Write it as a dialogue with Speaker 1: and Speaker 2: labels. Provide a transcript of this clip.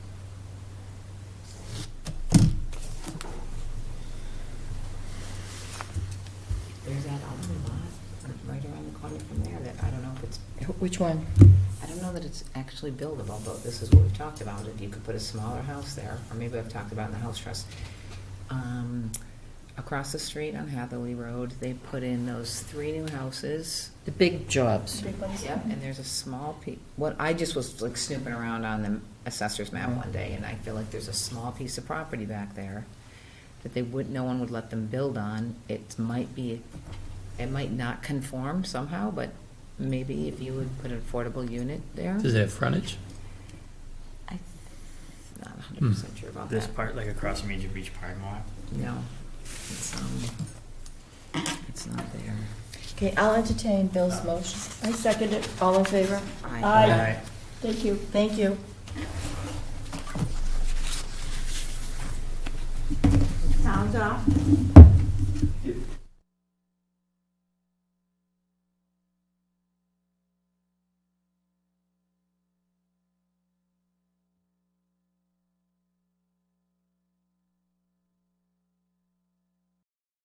Speaker 1: Which one?
Speaker 2: I don't know that it's actually buildable, but this is what we've talked about, if you could put a smaller house there, or maybe I've talked about in the house trust. Um, Across the street on Hathaway Road, they put in those three new houses.
Speaker 1: The big jobs.
Speaker 2: Yep, and there's a small piece, what, I just was like snooping around on the assessor's map one day, and I feel like there's a small piece of property back there that they would, no one would let them build on. It might be, it might not conform somehow, but maybe if you would put an affordable unit there.
Speaker 3: Does it have frontage?
Speaker 2: I'm Not hundred percent sure about
Speaker 4: This
Speaker 2: that.
Speaker 4: part, like across from Egypt Beach parking lot.
Speaker 2: No, it's, um, it's not there.
Speaker 1: Okay, I'll entertain Bill's motion. I second it. All in favor?
Speaker 2: I-
Speaker 4: Aye.
Speaker 1: Thank you. Thank you.
Speaker 5: Sounds off.